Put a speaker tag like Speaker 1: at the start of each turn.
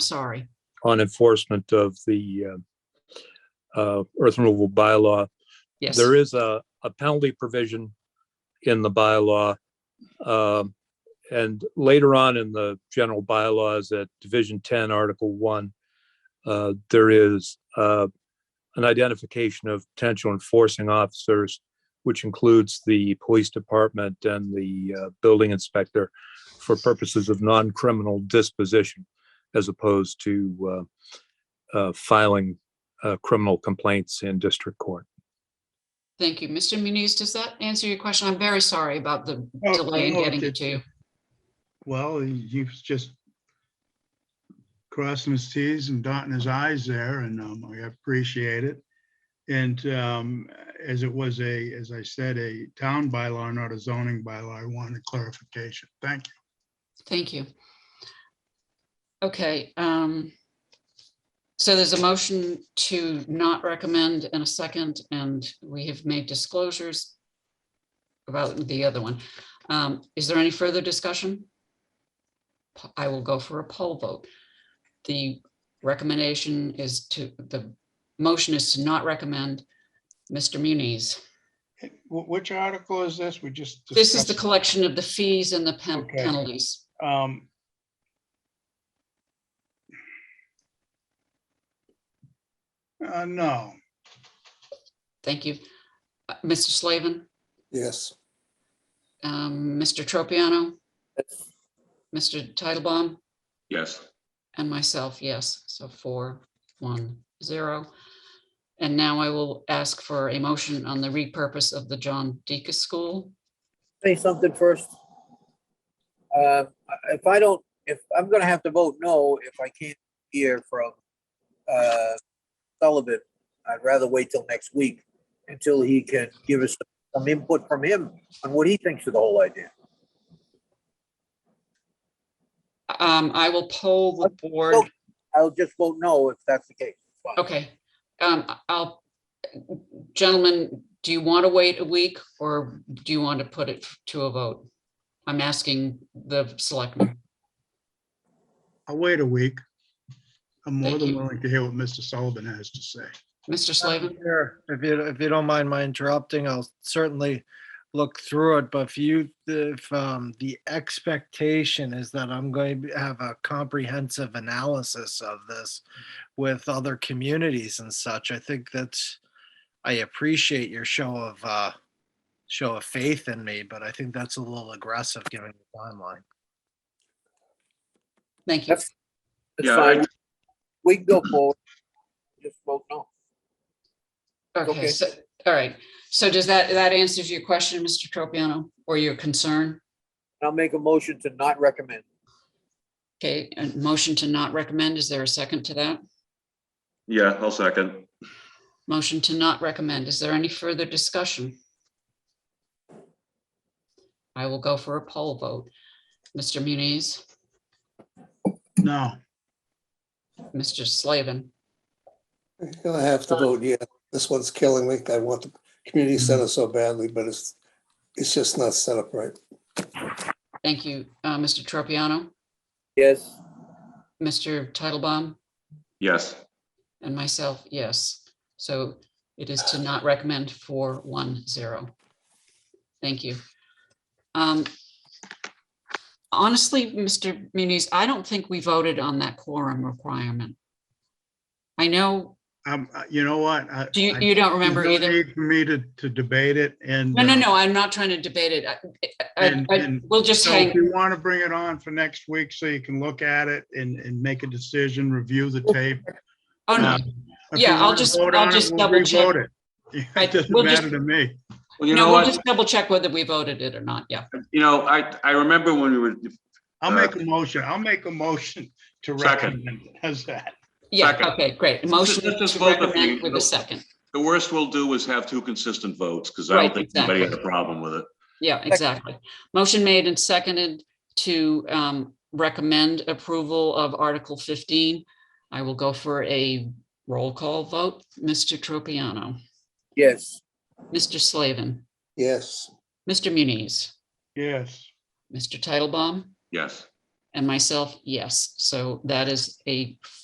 Speaker 1: sorry.
Speaker 2: on enforcement of the uh, uh, earth removal bylaw.
Speaker 1: Yes.
Speaker 2: There is a, a penalty provision in the bylaw. um, And later on in the general bylaws at Division 10, Article 1, uh, there is uh, an identification of potential enforcing officers, which includes the police department and the uh, building inspector for purposes of non-criminal disposition as opposed to uh, uh, filing uh, criminal complaints in district court.
Speaker 1: Thank you. Mr. Muniz, does that answer your question? I'm very sorry about the
Speaker 3: Oh,
Speaker 1: delay in
Speaker 3: no,
Speaker 1: getting it
Speaker 3: it's-
Speaker 1: to you.
Speaker 3: Well, you've just crossing his Ts and dotting his Is there, and um, I appreciate it. And um, as it was a, as I said, a town bylaw, not a zoning bylaw, I wanted clarification. Thank you.
Speaker 1: Thank you. Okay, um, so there's a motion to not recommend and a second, and we have made disclosures about the other one. Um, is there any further discussion? P- I will go for a poll vote. The recommendation is to, the motion is to not recommend. Mr. Muniz,
Speaker 3: Wh- Which article is this? We just.
Speaker 1: this is the
Speaker 3: discussed-
Speaker 1: collection of the fees and the pen-
Speaker 3: Okay.
Speaker 1: penalties.
Speaker 3: um, Uh, no,
Speaker 1: Thank you. Uh, Mr. Slavin?
Speaker 4: Yes.
Speaker 1: um, Mr. Tropiano, Mr. Titlebaum,
Speaker 5: Yes,
Speaker 1: and myself, yes. So four, one, zero. And now I will ask for a motion on the repurpose of the John Deacon School.
Speaker 4: Say something first. Uh, If I don't, if, I'm gonna have to vote no if I can't hear from uh, Sullivan. I'd rather wait till next week until he can give us some input from him on what he thinks of the whole idea.
Speaker 1: Um, I will poll the board.
Speaker 4: I'll just vote no if that's the case. Fine.
Speaker 1: Okay, um, I'll, gentlemen, do you want to wait a week or do you want to put it to a vote? I'm asking the selectmen.
Speaker 3: I'll wait a week. I'm more
Speaker 1: Thank
Speaker 3: than
Speaker 1: you.
Speaker 3: willing to hear what Mr. Sullivan has to say.
Speaker 1: Mr. Slavin,
Speaker 6: Sure. If you, if you don't mind my interrupting, I'll certainly look through it, but if you, if um, the expectation is that I'm going to have a comprehensive analysis of this with other communities and such, I think that's, I appreciate your show of, uh, show of faith in me, but I think that's a little aggressive given the timeline.
Speaker 1: thank you.
Speaker 4: It's
Speaker 5: Yeah,
Speaker 4: fine.
Speaker 5: I-
Speaker 4: We can go forward. Just vote no.
Speaker 1: Okay,
Speaker 4: Okay.
Speaker 1: so, all right. So does that, that answers your question, Mr. Tropiano, or your concern?
Speaker 4: I'll make a motion to not recommend.
Speaker 1: Okay, and motion to not recommend, is there a second to that?
Speaker 5: yeah, I'll second.
Speaker 1: Motion to not recommend, is there any further discussion? I will go for a poll vote. Mr. Muniz,
Speaker 3: No.
Speaker 1: Mr. Slavin,
Speaker 7: Gonna have to vote, yeah. This one's killing me. I want the community center so badly, but it's, it's just not set up right.
Speaker 1: thank you, uh, Mr. Tropiano,
Speaker 4: Yes.
Speaker 1: Mr. Titlebaum,
Speaker 5: Yes,
Speaker 1: and myself, yes. So it is to not recommend four, one, zero. Thank you. Um, Honestly, Mr. Muniz, I don't think we voted on that quorum requirement. I know,
Speaker 3: Um, uh, you know what? I-
Speaker 1: do you,
Speaker 3: I-
Speaker 1: you don't
Speaker 3: there's
Speaker 1: remember
Speaker 3: no
Speaker 1: either?
Speaker 3: need For me to, to debate it and.
Speaker 1: No, no,
Speaker 3: uh,
Speaker 1: no, I'm not trying to debate it. I- I- I-
Speaker 3: And-
Speaker 1: I-
Speaker 3: and
Speaker 1: We'll just
Speaker 3: So if
Speaker 1: hang,
Speaker 3: you want to bring it on for next week so you can look at it and, and make a decision, review the tape.
Speaker 1: oh, no,
Speaker 3: um, if you
Speaker 1: Yeah, I'll
Speaker 3: wanna
Speaker 1: just-
Speaker 3: vote
Speaker 1: I'll
Speaker 3: on it,
Speaker 1: just
Speaker 3: we'll
Speaker 1: double check.
Speaker 3: re-vote it.
Speaker 1: I-
Speaker 3: It doesn't
Speaker 1: we'll just-
Speaker 3: matter to me.
Speaker 5: well, you know
Speaker 1: no, we'll
Speaker 5: what,
Speaker 1: just double check whether we voted it or not, yeah.
Speaker 5: you know, I, I remember when we were,
Speaker 3: I'll
Speaker 5: Uh,
Speaker 3: make a motion. I'll make a motion to
Speaker 5: Second.
Speaker 3: recommend. How's that?
Speaker 1: Yeah,
Speaker 5: Second.
Speaker 1: okay, great.
Speaker 5: Let's just-
Speaker 1: Motion
Speaker 5: let's just
Speaker 1: to
Speaker 5: vote the
Speaker 1: recommend
Speaker 5: thing.
Speaker 1: with a second.
Speaker 5: the worst we'll do is have two consistent votes, because I
Speaker 1: Right,
Speaker 5: don't think anybody had a problem with it.
Speaker 1: Yeah, exactly. Motion made and seconded to um, recommend approval of Article 15. I will go for a roll call vote. Mr. Tropiano,
Speaker 4: Yes.
Speaker 1: Mr. Slavin,
Speaker 7: Yes,
Speaker 1: Mr. Muniz,
Speaker 3: Yes.
Speaker 1: Mr. Titlebaum,
Speaker 5: Yes,
Speaker 1: and myself, yes. So that is a